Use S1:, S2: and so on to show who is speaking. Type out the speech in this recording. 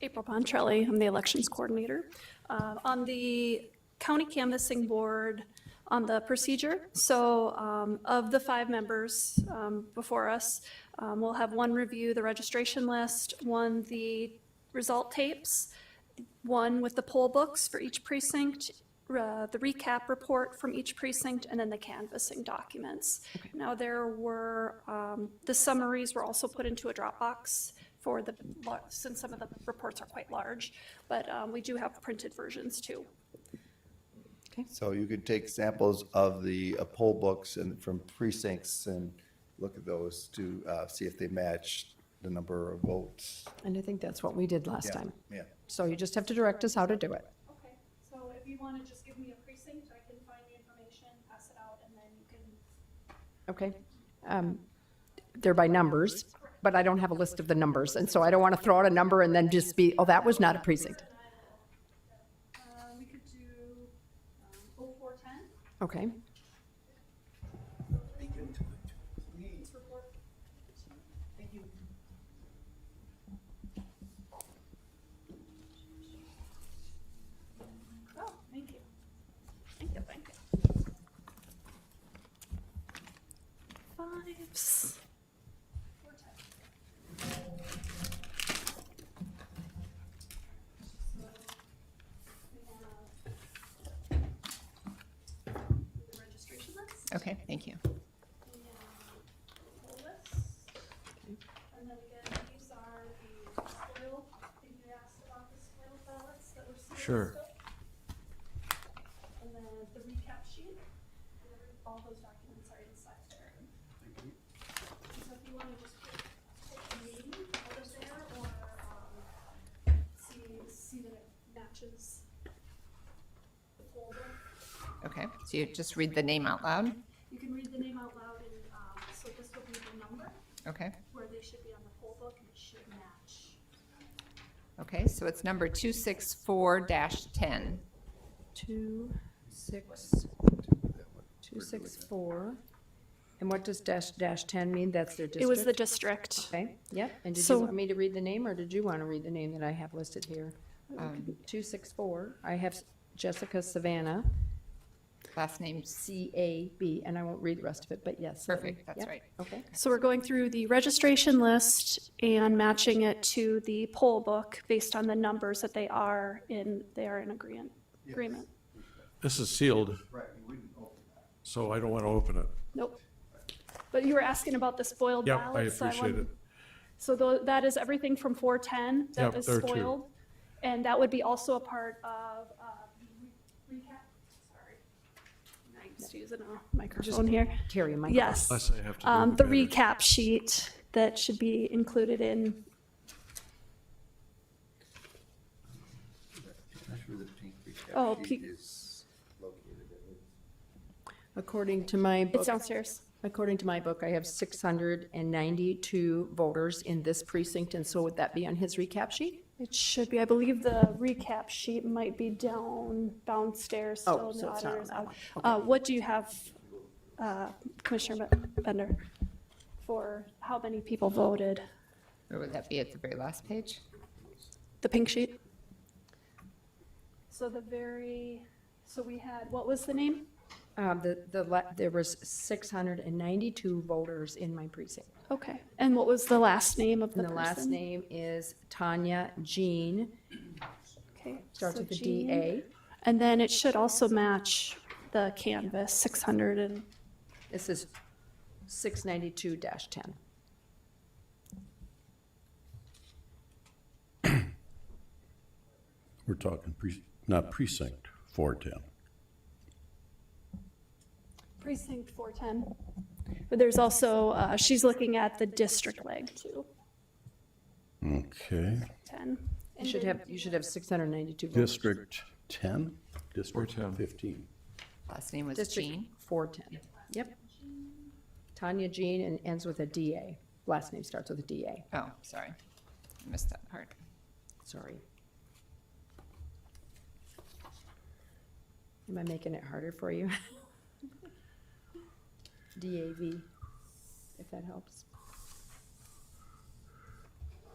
S1: April Pontrelli, I'm the elections coordinator. Uh, On the county canvassing board, on the procedure, so um, of the five members um, before us, um, we'll have one review the registration list, one the result tapes, one with the poll books for each precinct, uh, the recap report from each precinct, and then the canvassing documents. Now, there were, um, the summaries were also put into a Dropbox for the, lar- since some of the reports are quite large, but um, we do have printed versions too.
S2: So you could take samples of the uh, poll books and from precincts and look at those to uh, see if they match the number of votes.
S3: And I think that's what we did last
S2: Yeah,
S3: time.
S2: Yeah.
S3: So you just have to direct us how to do it.
S1: Okay, so if you want to just give me a precinct, I can find the information, pass it out, and then you can.
S3: Okay. Um, They're by numbers, but I don't have a list of the numbers, and so I don't want to throw out a number and then just be, oh, that was not a precinct.
S1: Uh, We could do oh four ten,
S3: Okay.
S1: it's report. Thank you. Oh, thank you. Thank you, thank you. Fives. Four ten. The registration list?
S4: Okay, thank you.
S1: And then again, these are the spoil, if you asked about the spoil ballots that were sealed.
S5: Sure.
S1: And then the recap sheet, and every- all those documents are inside there. So if you want to just take take the meeting out of there or um, see, see that it matches the folder.
S4: Okay, so you just read the name out loud?
S1: You can read the name out loud and um, so this will be the number
S4: Okay,
S1: where they should be on the poll book and it should match.
S4: okay, so it's number 264-10.
S3: Two, six, two, six, four. And what does dash, dash 10 mean? That's their district?
S1: It was the district.
S3: Okay, yep. And did you
S1: So-
S3: want me to read the name, or did you want to read the name that I have listed here?
S4: Um,
S3: Two, six, four. I have Jessica Savannah,
S4: Last name's
S3: C-A-B, and I won't read the rest of it, but yes. that
S4: perfect,
S3: one.
S4: that's
S3: Yep,
S4: right.
S3: Okay.
S1: So we're going through the registration list and matching it to the poll book based on the numbers that they are in, they are in agreement, agreement.
S5: This is sealed,
S2: Right, you wouldn't open
S5: so I don't want to open it.
S1: Nope. But you were asking about the spoiled
S5: Yep, I
S1: ballots. so
S5: appreciate
S1: wanted-
S5: it.
S1: So tho- that is everything from 410 that
S5: Yep,
S1: was
S5: there are two.
S1: spoiled. And that would be also a part of uh, re- recap, sorry. I'm just using a microphone here.
S3: Terry, my.
S1: Yes.
S5: Unless I have to do
S1: Um, The
S5: the minutes.
S1: recap sheet that should be included in,
S3: Oh,
S2: Sure the pink recap
S1: Oh,
S2: sheet
S1: pink.
S2: is located in it.
S3: According to my
S1: it's
S3: book,
S1: downstairs.
S3: according to my book, I have six hundred and ninety-two voters in this precinct, and so would that be on his recap sheet?
S1: It should be, I believe the recap sheet might be down, downstairs,
S3: Oh,
S1: still in
S3: so
S1: the
S3: it's not on
S1: auditor's.
S3: that
S1: out. Uh, What do you have, uh, Commissioner Bender, for how many people voted?
S4: Or would that be at the very last page?
S1: The pink sheet? So the very, so we had, what was the name?
S3: Um, the, the, la- there was six hundred and ninety-two voters in my precinct.
S1: Okay, and what was the last name of the
S3: And
S1: person?
S3: the last name is Tanya Jean,
S1: Okay,
S3: starts
S1: so
S3: with a
S1: Jean.
S3: D-A.
S1: And then it should also match the canvas, 600 and,
S3: This is six ninety-two ten.
S6: We're talking pre, not precinct, four ten.
S1: precinct 410. But there's also, uh, she's looking at the district leg too,
S6: Okay,
S1: 10.
S3: You should have, you should have six hundred and ninety-two voters.
S6: District ten, District
S5: 410.
S6: fifteen.
S4: Last name was
S3: District
S4: Jean.
S3: Four ten, yep. Tanya Jean and ends with a DA. Last name starts with a DA,
S4: Oh, sorry, I missed that part.
S3: sorry. Am I making it harder for you? DAV, if that helps.